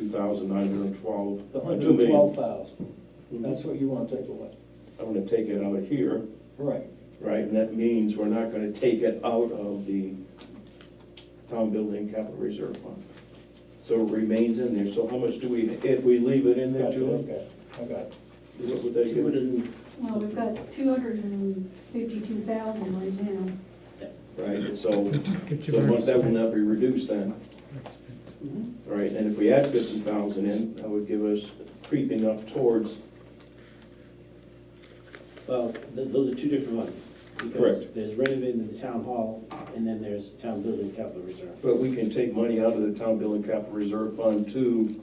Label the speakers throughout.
Speaker 1: thousand nine hundred and twelve.
Speaker 2: The hundred and twelve thousand, that's what you wanna take away.
Speaker 1: I'm gonna take it out of here,
Speaker 2: Right,
Speaker 1: right, and that means we're not gonna take it out of the town building capital reserve fund. So it remains in there, so how much do we, if we leave it in there,
Speaker 2: gotcha,
Speaker 1: Julie?
Speaker 2: okay, I got it.
Speaker 1: What would that
Speaker 3: Two
Speaker 1: give?
Speaker 3: hundred
Speaker 1: us?
Speaker 3: and,
Speaker 4: Well, we've got two hundred and fifty-two thousand right now.
Speaker 1: Right, so,
Speaker 5: Get
Speaker 1: so
Speaker 5: your
Speaker 1: much- that will
Speaker 5: expense.
Speaker 1: not be reduced then,
Speaker 3: Mm-hmm.
Speaker 1: right, and if we add fifty thousand in, that would give us creeping up towards,
Speaker 3: well, th- those are two different ones. Because
Speaker 1: Correct.
Speaker 3: there's renovating the town hall, and then there's town building capital reserve.
Speaker 1: but we can take money out of the town building capital reserve fund to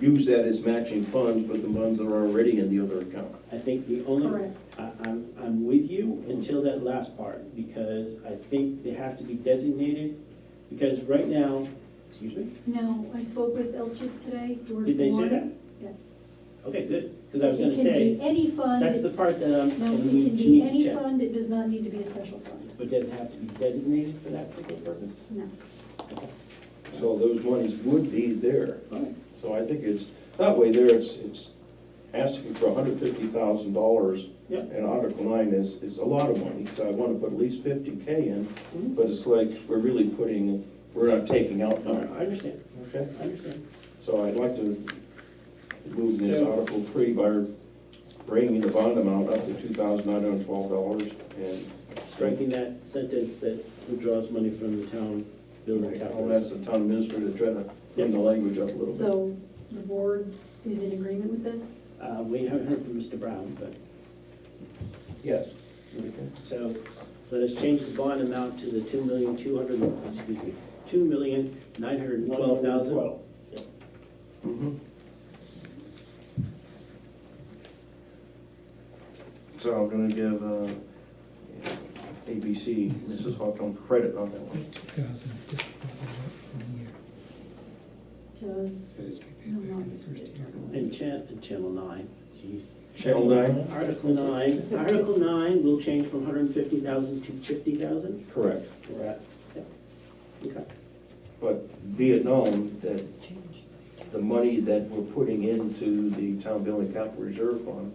Speaker 1: use that as matching funds, but the funds that are already in the other account.
Speaker 3: I think the only,
Speaker 4: Correct.
Speaker 3: I, I'm, I'm with you until that last part, because I think it has to be designated, because right now, excuse me?
Speaker 4: No, I spoke with Elchip today, George
Speaker 3: Did they say
Speaker 4: Moore.
Speaker 3: that?
Speaker 4: Yes.
Speaker 3: Okay, good, because I was gonna
Speaker 4: It can be
Speaker 3: say,
Speaker 4: any fund,
Speaker 3: that's the
Speaker 4: no,
Speaker 3: part that I'm,
Speaker 4: it
Speaker 3: we
Speaker 4: can
Speaker 3: need
Speaker 4: be
Speaker 3: to
Speaker 4: any
Speaker 3: check.
Speaker 4: fund, it does not need to be a special fund,
Speaker 3: But does it have to be designated for that particular purpose?
Speaker 4: no.
Speaker 3: Okay.
Speaker 1: So those monies would be there.
Speaker 3: All right.
Speaker 1: So I think it's, that way there, it's, it's asking for hundred fifty thousand dollars.
Speaker 3: Yeah.
Speaker 1: And Article nine is, is a lot of money, so I wanna put at least fifty K in,
Speaker 3: Mhm.
Speaker 1: but it's like, we're really putting, we're not taking out
Speaker 3: All
Speaker 1: money.
Speaker 3: right, I understand,
Speaker 1: Okay.
Speaker 3: I understand.
Speaker 1: So I'd like to move this
Speaker 3: So-
Speaker 1: Article three by bringing the bond amount up to two thousand nine hundred and twelve dollars and
Speaker 3: Striking that sentence that withdraws money from the town building
Speaker 1: I'll
Speaker 3: capital.
Speaker 1: ask the town administrator to try to clean the language up a little bit.
Speaker 4: So the board is in agreement with this?
Speaker 3: Uh, we haven't heard from Mr. Brown, but,
Speaker 1: Yes.
Speaker 3: so, let us change the bond amount to the two million, two hundred, excuse me, two million, nine hundred and twelve thousand.
Speaker 1: Mhm. So I'm gonna give, uh, ABC, Mrs. Hawthorne, credit on that one.
Speaker 5: Two thousand, just probably left one year.
Speaker 4: Does,
Speaker 5: So it's repaid
Speaker 4: No,
Speaker 5: back
Speaker 4: no,
Speaker 5: in the
Speaker 4: it's
Speaker 5: first year.
Speaker 3: And chan, and channel nine, jeez.
Speaker 1: Channel nine?
Speaker 3: Article nine, Article nine will change from hundred and fifty thousand to fifty thousand,
Speaker 1: Correct.
Speaker 3: is that? yeah. Okay,
Speaker 1: But be it known that the money that we're putting into the town building capital reserve fund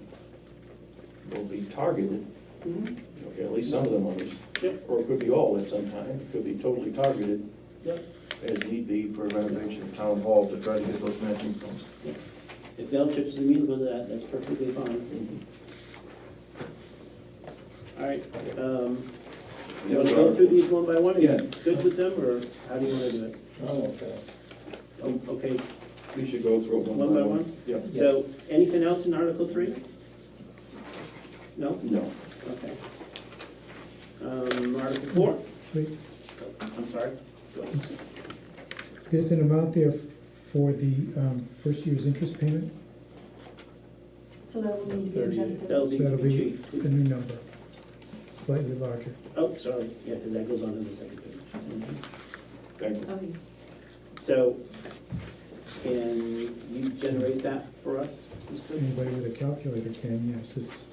Speaker 1: will be targeted,
Speaker 3: Mhm.
Speaker 1: okay, at least some of the monies.
Speaker 3: Yep.
Speaker 1: Or it could be all at some time, it could be totally targeted
Speaker 3: Yep.
Speaker 1: as need be for renovation of town hall to try to get those matching funds.
Speaker 3: If the L trips is amenable to that, that's perfectly fine. All right, um, you wanna go through these one by one? Are you
Speaker 1: Yeah.
Speaker 3: Good with them, or how do you wanna do it?
Speaker 2: I'm okay.
Speaker 3: Oh, Okay,
Speaker 1: We should go through it
Speaker 3: one by one?
Speaker 1: Um, Yeah.
Speaker 3: So, anything else in Article three? No?
Speaker 1: No.
Speaker 3: Okay. Um, Article four,
Speaker 5: Wait,
Speaker 3: I'm sorry. Go ahead.
Speaker 5: There's an amount there f- for the um, first year's interest payment,
Speaker 4: so that will need to be adjusted.
Speaker 3: That'll
Speaker 5: so
Speaker 3: be to
Speaker 5: that'll
Speaker 3: be
Speaker 5: be
Speaker 3: chief.
Speaker 5: the new number, slightly larger.
Speaker 3: Oh, sorry, yeah, because that goes on in the second page.
Speaker 1: Thank you.
Speaker 4: Okay.
Speaker 3: So, can you generate that for us, Mr.?
Speaker 5: Anybody with a calculator can, yes, it's,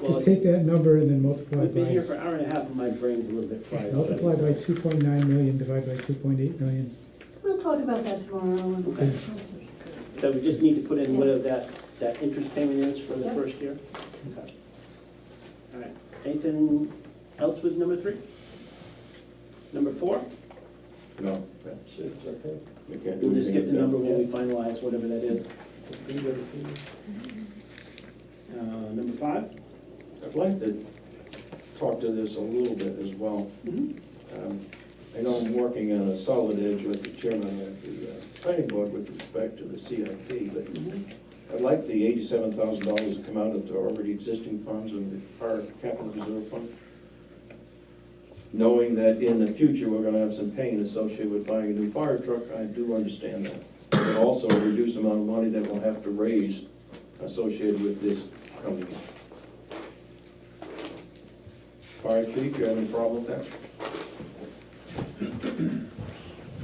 Speaker 3: Well,
Speaker 5: just take that number and then multiply
Speaker 3: I've been here
Speaker 5: by,
Speaker 3: for an hour and a half, and my brain's a little bit fried. already,
Speaker 5: multiply by
Speaker 3: so-
Speaker 5: two point nine million, divide by two point eight million.
Speaker 4: We'll talk about that tomorrow. and-
Speaker 5: Okay.
Speaker 3: So we just need to put in whatever
Speaker 4: Yes.
Speaker 3: that, that interest payment is for the
Speaker 4: Yep.
Speaker 3: first year? Okay. All right, anything else with number three? Number four?
Speaker 1: No, that's it.
Speaker 2: It's okay.
Speaker 1: We can't do
Speaker 3: We'll just get the
Speaker 1: anything
Speaker 3: number
Speaker 1: about
Speaker 3: when we finalize, whatever that is.
Speaker 2: Be there for you.
Speaker 3: Uh, number five?
Speaker 1: that. I'd like to talk to this a little bit as well.
Speaker 3: Mhm.
Speaker 1: Um, I know I'm working on a solid edge with the chairman of the uh, planning board with respect to the CIP, but I'd like the eighty-seven thousand dollars to come out of the already existing funds of the park capital reserve fund. Knowing that in the future, we're gonna have some pain associated with buying a new fire truck, I do understand that. But also a reduced amount of money that we'll have to raise associated with this coming. Fire chief, you have any problem with that?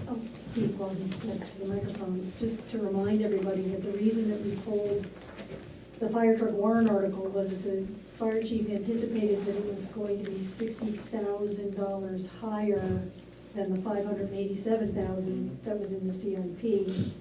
Speaker 4: I'll speak while he gets to the microphone, just to remind everybody that the reason that we pulled the fire truck warrant article was that the fire chief anticipated that it was going to be sixty thousand dollars higher than the five hundred and eighty-seven thousand that was in the CIP.